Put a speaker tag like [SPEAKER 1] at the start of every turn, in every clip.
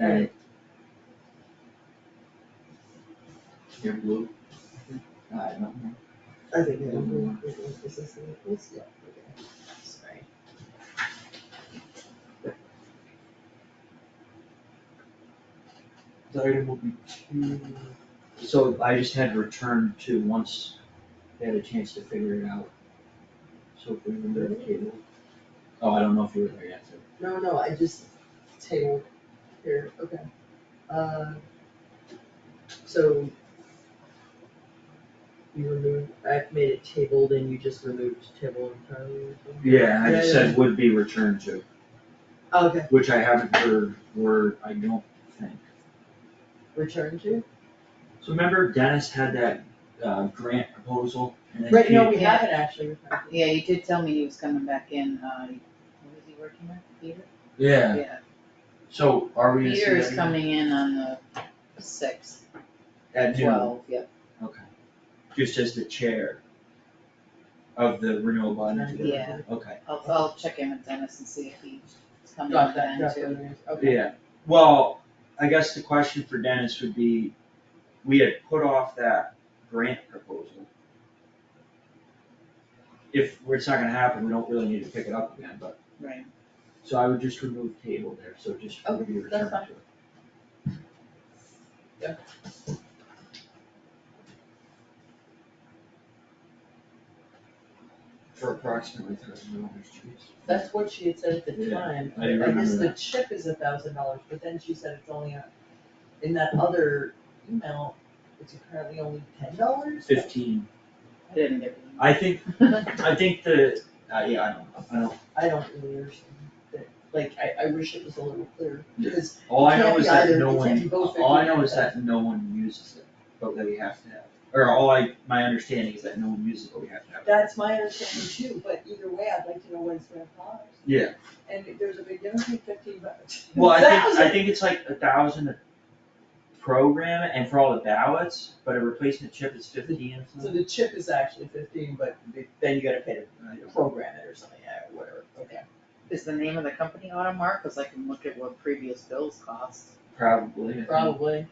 [SPEAKER 1] Alright,
[SPEAKER 2] You're blue. I don't know.
[SPEAKER 1] I think, yeah, we're- we're going to assess it. Let's- yeah, okay,
[SPEAKER 2] Sorry.
[SPEAKER 3] The item will be two. So I just had returned to once they had a chance to figure it out. So if we remember the cable. Oh, I don't know if you were there yet, so.
[SPEAKER 1] no, no, I just tabled here, okay. Uh, so you removed, I've made it tabled and you just removed table entirely or something?
[SPEAKER 3] Yeah, I just
[SPEAKER 1] Yeah, yeah.
[SPEAKER 3] said would be returned to,
[SPEAKER 1] Oh, Okay,
[SPEAKER 3] which I haven't heard word, I don't think.
[SPEAKER 1] return to?
[SPEAKER 3] So remember Dennis had that uh grant proposal and then
[SPEAKER 1] Right, no,
[SPEAKER 3] she-
[SPEAKER 1] we haven't actually returned to.
[SPEAKER 2] Yeah, you did tell me he was coming back in, uh, what was he working with, Peter?
[SPEAKER 3] Yeah, so are we gonna see
[SPEAKER 2] Peter is
[SPEAKER 3] that again?
[SPEAKER 2] coming in on the sixth,
[SPEAKER 3] At noon.
[SPEAKER 2] twelve, yep,
[SPEAKER 3] Okay. Just as the chair of the renewable energy. board.
[SPEAKER 2] Yeah.
[SPEAKER 3] Okay,
[SPEAKER 2] I'll, I'll check in with Dennis and see if he's coming in
[SPEAKER 1] Got that,
[SPEAKER 2] then
[SPEAKER 1] got
[SPEAKER 2] too.
[SPEAKER 1] that, okay.
[SPEAKER 3] yeah, well, I guess the question for Dennis would be, we had put off that grant proposal. If it's not gonna happen, we don't really need to pick it up again, but,
[SPEAKER 2] Right,
[SPEAKER 3] so I would just remove table there, so just would
[SPEAKER 1] Okay,
[SPEAKER 3] be
[SPEAKER 1] that's
[SPEAKER 3] returned to it.
[SPEAKER 1] fine. Yeah.
[SPEAKER 3] For approximately thirty dollars, geez.
[SPEAKER 1] That's what she had said at the
[SPEAKER 3] Yeah,
[SPEAKER 1] time,
[SPEAKER 3] I
[SPEAKER 1] I
[SPEAKER 3] do
[SPEAKER 1] guess
[SPEAKER 3] remember
[SPEAKER 1] the
[SPEAKER 3] that.
[SPEAKER 1] chip is a thousand dollars, but then she said it's only a, in that other email, it's apparently only ten dollars?
[SPEAKER 3] Fifteen,
[SPEAKER 2] I didn't get it.
[SPEAKER 3] I think, I think the, uh, yeah, I don't, know. I don't,
[SPEAKER 1] I don't really understand that, like, I, I wish it was a little clearer,
[SPEAKER 3] Yeah.
[SPEAKER 1] because,
[SPEAKER 3] all I know
[SPEAKER 1] Can't
[SPEAKER 3] is
[SPEAKER 1] be
[SPEAKER 3] that
[SPEAKER 1] either,
[SPEAKER 3] no
[SPEAKER 1] it can't
[SPEAKER 3] one,
[SPEAKER 1] be both, it
[SPEAKER 3] all I
[SPEAKER 1] can't
[SPEAKER 3] know
[SPEAKER 1] be
[SPEAKER 3] is that no one uses it, but that we have to have. Or all I, my understanding is that no one uses it, but we have to have it.
[SPEAKER 1] that's my understanding too, but either way, I'd like to know what it's gonna cost.
[SPEAKER 3] Yeah,
[SPEAKER 1] And if there's a big difference between fifteen bucks.
[SPEAKER 3] well, I think, I
[SPEAKER 1] Thousand!
[SPEAKER 3] think it's like a thousand to program it and for all the ballots, but a replacement chip is fifteen or
[SPEAKER 1] So
[SPEAKER 3] something.
[SPEAKER 1] the chip is actually fifteen, but the- then you gotta pay
[SPEAKER 3] I
[SPEAKER 1] to
[SPEAKER 3] don't-
[SPEAKER 1] program it or something, yeah, whatever, okay.
[SPEAKER 2] Is the name of the company Automark, cause I can look at what previous bills cost.
[SPEAKER 3] Probably, I think.
[SPEAKER 1] Probably.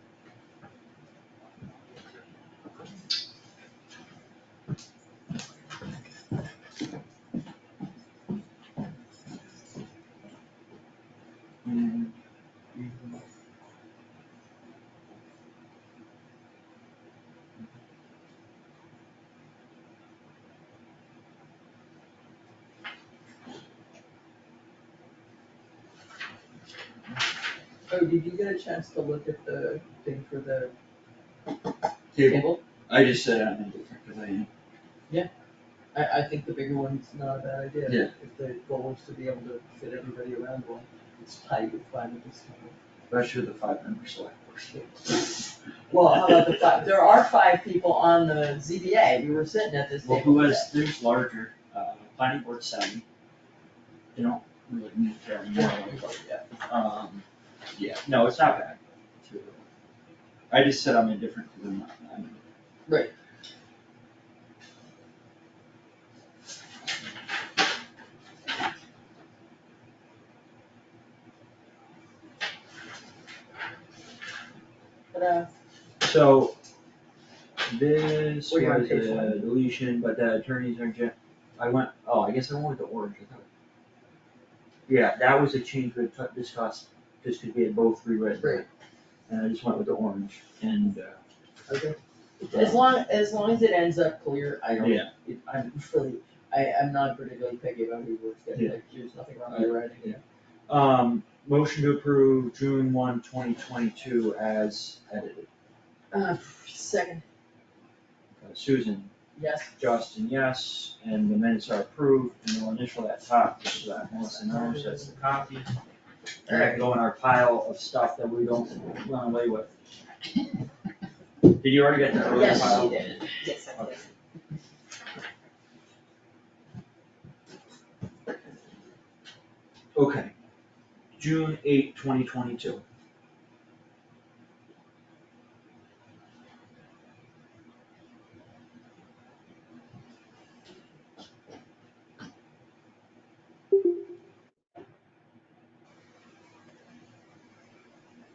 [SPEAKER 3] Mm.
[SPEAKER 1] Oh, did you get a chance to look at the thing for the
[SPEAKER 3] Table, I just said I'm indifferent, cause I am.
[SPEAKER 1] I, I think the bigger one's not a bad idea.
[SPEAKER 3] Yeah.
[SPEAKER 1] If the goal is to be able to fit everybody around one, it's tight with five of us.
[SPEAKER 3] Especially the five member select board.
[SPEAKER 1] Well, how about the five, there are five people on the ZBA, we were sitting at this
[SPEAKER 3] Well,
[SPEAKER 1] table.
[SPEAKER 3] who
[SPEAKER 1] today.
[SPEAKER 3] has, there's larger, uh, planning board seven. They don't really need to have more,
[SPEAKER 1] Yeah, we voted, yeah.
[SPEAKER 3] um, yeah, no, it's not bad. Two of them. I just said I'm indifferent to them, I'm.
[SPEAKER 1] Right. But, uh,
[SPEAKER 3] So, this was
[SPEAKER 1] Were you on page
[SPEAKER 3] a
[SPEAKER 1] one?
[SPEAKER 3] deletion, but the attorneys aren't yet, I went, oh, I guess I went with the orange, I thought. Yeah, that was a change we had cut- discussed, just because we had both reread. it.
[SPEAKER 1] Right.
[SPEAKER 3] And I just went with the orange, and, uh,
[SPEAKER 1] okay, as long, as long as it ends up clear, I don't,
[SPEAKER 3] Yeah.
[SPEAKER 1] it, I'm really, I, I'm not particularly picky about who works there,
[SPEAKER 3] Yeah.
[SPEAKER 1] like, there's nothing wrong with writing.
[SPEAKER 3] Yeah. Um, motion to approve June 1, 2022, as edited.
[SPEAKER 1] Uh, second,
[SPEAKER 3] Uh, Susan,
[SPEAKER 1] yes,
[SPEAKER 3] Justin, yes, and the minutes are approved, and we'll initial that top, just so that Melissa knows that's the copy. And that can go in our pile of stuff that we don't run away with. Did you already get that earlier
[SPEAKER 1] Yes, she
[SPEAKER 3] pile?
[SPEAKER 1] did.
[SPEAKER 2] Yes, I did.
[SPEAKER 3] Okay. June 8, 2022.